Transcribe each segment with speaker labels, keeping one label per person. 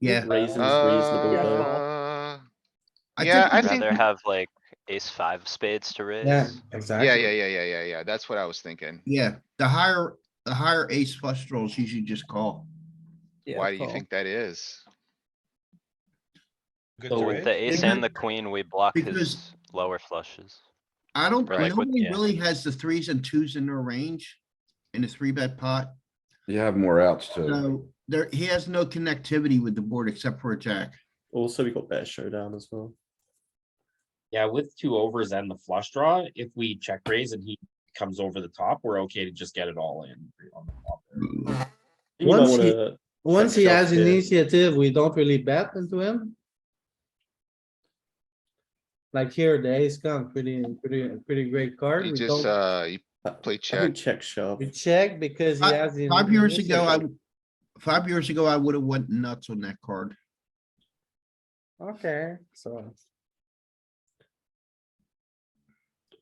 Speaker 1: Yeah,
Speaker 2: Raisins
Speaker 3: Oh.
Speaker 2: reasonable though.
Speaker 3: Uh,
Speaker 1: I
Speaker 3: yeah,
Speaker 1: think
Speaker 3: I
Speaker 4: I'd
Speaker 3: think,
Speaker 4: rather
Speaker 3: yeah,
Speaker 4: have like ace five spades to
Speaker 5: Yeah,
Speaker 4: raise.
Speaker 5: exactly.
Speaker 3: yeah, yeah, yeah, yeah, yeah. That's what I was thinking.
Speaker 1: yeah, the higher, the higher ace flush draws you should just call.
Speaker 5: yeah.
Speaker 3: Why do you think that is?
Speaker 6: Good
Speaker 2: So
Speaker 6: to
Speaker 2: with
Speaker 6: it.
Speaker 4: With the ace and the queen, we block
Speaker 1: Because-
Speaker 4: his lower flushes.
Speaker 1: I don't,
Speaker 4: Or like with-
Speaker 1: nobody
Speaker 4: yeah.
Speaker 1: really has the threes and twos in their range in the three bet pot.
Speaker 7: You have more outs too.
Speaker 1: So there, he has no connectivity with the board except for a jack.
Speaker 2: Also, we got better showdown as well.
Speaker 8: Yeah, with two overs and the flush draw, if we check raise and he comes over the top, we're okay to just get it all in. on the flop there.
Speaker 7: Mm.
Speaker 4: Uh,
Speaker 2: You uh, don't
Speaker 5: Once he-
Speaker 2: wanna-
Speaker 5: Once he
Speaker 2: Check
Speaker 5: has
Speaker 2: shove it.
Speaker 5: initiative, we don't really bet into him. Like here, the ace come pretty, pretty, pretty great card.
Speaker 3: You
Speaker 5: We
Speaker 3: just,
Speaker 5: don't,
Speaker 3: uh, you play
Speaker 2: I
Speaker 3: check.
Speaker 2: think check shove.
Speaker 5: we check because he
Speaker 1: Fi-
Speaker 5: has. the
Speaker 1: Five years
Speaker 5: initiative.
Speaker 1: ago, I, five years ago, I would have went nuts on that card.
Speaker 5: Okay, so.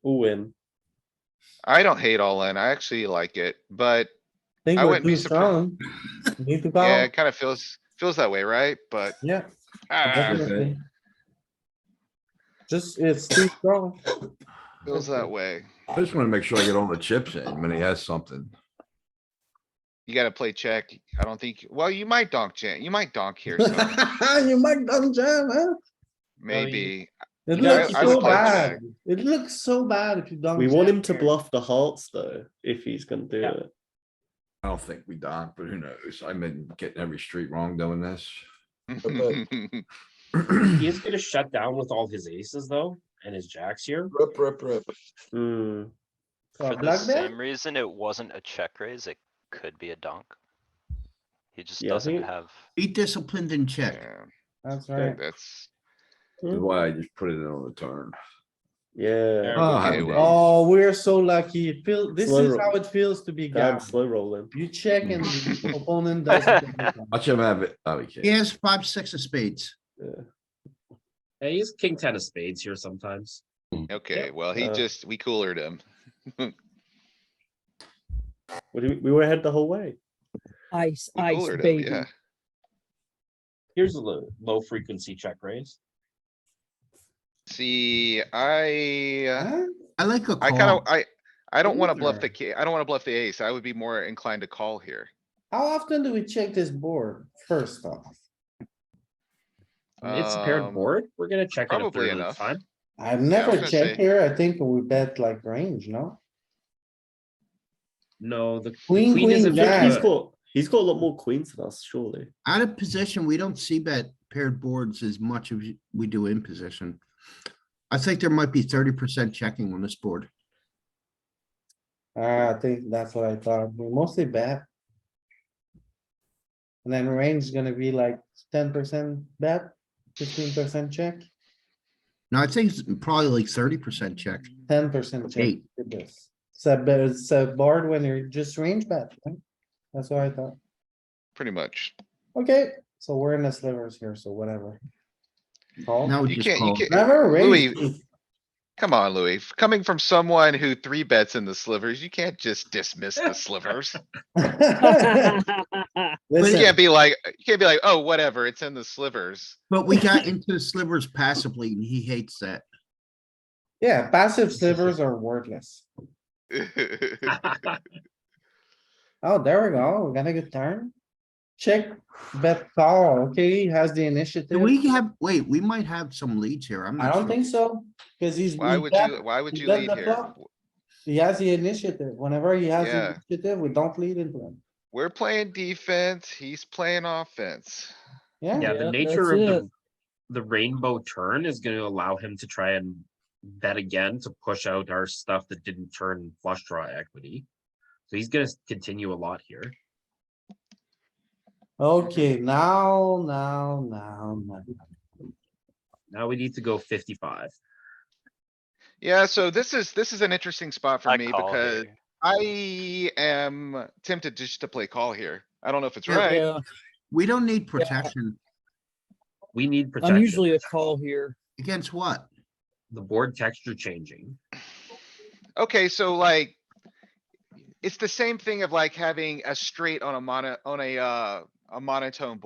Speaker 2: All in.
Speaker 3: I don't hate all in. I actually like it, but
Speaker 5: Think
Speaker 3: I
Speaker 5: we're
Speaker 3: wouldn't be
Speaker 5: too
Speaker 3: surprised.
Speaker 5: strong. Need to
Speaker 3: yeah,
Speaker 5: call.
Speaker 3: it kinda feels, feels that way, right? But.
Speaker 5: Yeah,
Speaker 3: ah,
Speaker 5: definitely. Just, it's too strong.
Speaker 3: Feels that way.
Speaker 7: I just wanna make sure I get all the chips in when he has something.
Speaker 3: You gotta play check. I don't think, well, you might donk, Jan, you might donk here, so
Speaker 5: You might double jam, huh?
Speaker 3: maybe.
Speaker 5: It
Speaker 2: Yeah, I-
Speaker 5: looks
Speaker 2: I would
Speaker 5: so
Speaker 2: play
Speaker 5: bad.
Speaker 3: check.
Speaker 5: It looks so bad if you don't.
Speaker 2: We want him to
Speaker 5: jam.
Speaker 2: bluff the hearts though, if he's gonna do
Speaker 8: Yeah.
Speaker 2: it.
Speaker 7: I don't think we don't, but who knows? I've been getting every street wrong doing this.
Speaker 8: He is gonna shut down with all his aces though, and his jacks here.
Speaker 9: Rip, rip, rip.
Speaker 2: Hmm,
Speaker 5: So
Speaker 4: For the
Speaker 5: black bet?
Speaker 4: same reason it wasn't a check raise, it could be a dunk. He just
Speaker 2: Yeah, I
Speaker 4: doesn't
Speaker 2: think-
Speaker 4: have,
Speaker 1: Be disciplined and check.
Speaker 3: Yeah,
Speaker 5: That's right.
Speaker 3: That's,
Speaker 7: That's Why I just put it in on the turn.
Speaker 2: yeah.
Speaker 7: Oh, happy
Speaker 3: Okay,
Speaker 7: days.
Speaker 5: Oh, we're so lucky. Feel, this
Speaker 2: Slow
Speaker 5: is
Speaker 2: roll.
Speaker 5: how it feels to be
Speaker 2: Damn,
Speaker 5: gassed.
Speaker 2: slow rolling.
Speaker 5: You check and the opponent doesn't. check you.
Speaker 7: Watch him have it. Oh, he
Speaker 1: He
Speaker 7: can't.
Speaker 1: has five, six of spades.
Speaker 8: Yeah, he's king ten of spades here sometimes.
Speaker 3: okay, well, he
Speaker 2: Uh,
Speaker 3: just, we coolered him.
Speaker 2: What do We we were ahead the whole way.
Speaker 10: Ice,
Speaker 3: We
Speaker 10: ice,
Speaker 3: coolered him,
Speaker 10: baby.
Speaker 3: yeah.
Speaker 8: Here's a low, low frequency check raise.
Speaker 3: See, I, uh,
Speaker 5: Huh?
Speaker 1: I like a
Speaker 3: I kinda,
Speaker 1: call.
Speaker 3: I, I don't wanna bluff
Speaker 5: Either.
Speaker 3: the ki, I don't wanna bluff the ace. I would be more inclined to call here.
Speaker 5: How often do we check this board first off?
Speaker 8: It's a paired
Speaker 3: Um,
Speaker 8: board. We're gonna check it a
Speaker 3: probably
Speaker 8: third of the
Speaker 3: enough.
Speaker 8: time.
Speaker 5: I've
Speaker 3: was
Speaker 5: never
Speaker 3: gonna say-
Speaker 5: checked here. I think we bet like range, no?
Speaker 8: No, the
Speaker 5: Queen,
Speaker 8: Queen is a
Speaker 5: queen,
Speaker 8: big
Speaker 2: He's
Speaker 5: jack.
Speaker 8: good.
Speaker 2: got, he's got a lot more queens than us, surely.
Speaker 1: Out of position, we don't see bet paired boards as much as we do in position. I think there might be thirty percent checking on this board.
Speaker 5: Ah, I think that's what I thought. We mostly bet. And then range is gonna be like ten percent bet, fifteen percent check,
Speaker 1: No, I think it's probably like thirty percent check.
Speaker 5: ten percent check.
Speaker 1: Eight.
Speaker 5: Look at this. It's a, bet- it's a board when you're just range bet. right? That's what I thought.
Speaker 3: Pretty much.
Speaker 5: Okay, so we're in the slivers here, so whatever. Call.
Speaker 1: Now we
Speaker 3: You
Speaker 1: just
Speaker 3: can't, you
Speaker 1: call.
Speaker 3: can't,
Speaker 5: Never raise.
Speaker 3: Louis, come on, Louis. F- Coming from someone who three bets in the slivers, you can't just dismiss the slivers. You
Speaker 5: Listen,
Speaker 3: can't be like, you can't be like, oh, whatever, it's in the slivers.
Speaker 1: But we got into slivers passively and he hates that.
Speaker 5: yeah, passive slivers are worthless. Oh, there we go. We got a good turn. Check bet call, okay, he has the
Speaker 1: Do
Speaker 5: initiative.
Speaker 1: we have, wait, we might have some leads here. I'm
Speaker 5: I
Speaker 1: not
Speaker 5: don't
Speaker 1: sure.
Speaker 5: think so, cuz he's,
Speaker 3: Why
Speaker 5: he
Speaker 3: would
Speaker 5: bet-
Speaker 3: you, why would
Speaker 5: you
Speaker 3: you
Speaker 5: bet
Speaker 3: lead
Speaker 5: the
Speaker 3: here?
Speaker 5: flop.
Speaker 3: W-
Speaker 5: he has the initiative. Whenever he has
Speaker 3: Yeah.
Speaker 5: the initiative, we don't lead into him.
Speaker 3: We're playing defense, he's playing offense.
Speaker 5: Yeah,
Speaker 8: Yeah,
Speaker 10: Yeah,
Speaker 8: the nature of
Speaker 10: that's
Speaker 8: the, the rainbow turn is gonna allow him to try and bet again to push out our stuff that didn't turn flush draw equity. So he's gonna s- continue a lot here.
Speaker 5: okay, now, now, now, now.
Speaker 8: Now we need to go fifty-five.
Speaker 3: Yeah, so this is, this is an interesting spot for
Speaker 4: I
Speaker 3: me
Speaker 4: call
Speaker 3: because
Speaker 4: here.
Speaker 3: I am tempted just to play call here. I don't know if it's
Speaker 1: Yeah,
Speaker 3: right.
Speaker 1: We don't need protection.
Speaker 8: We need protection.
Speaker 10: I'm usually a call here.
Speaker 1: Against what?
Speaker 8: The board texture changing.
Speaker 3: Okay, so like. It's the same thing of like having a straight on a mono, on a, uh, a monotone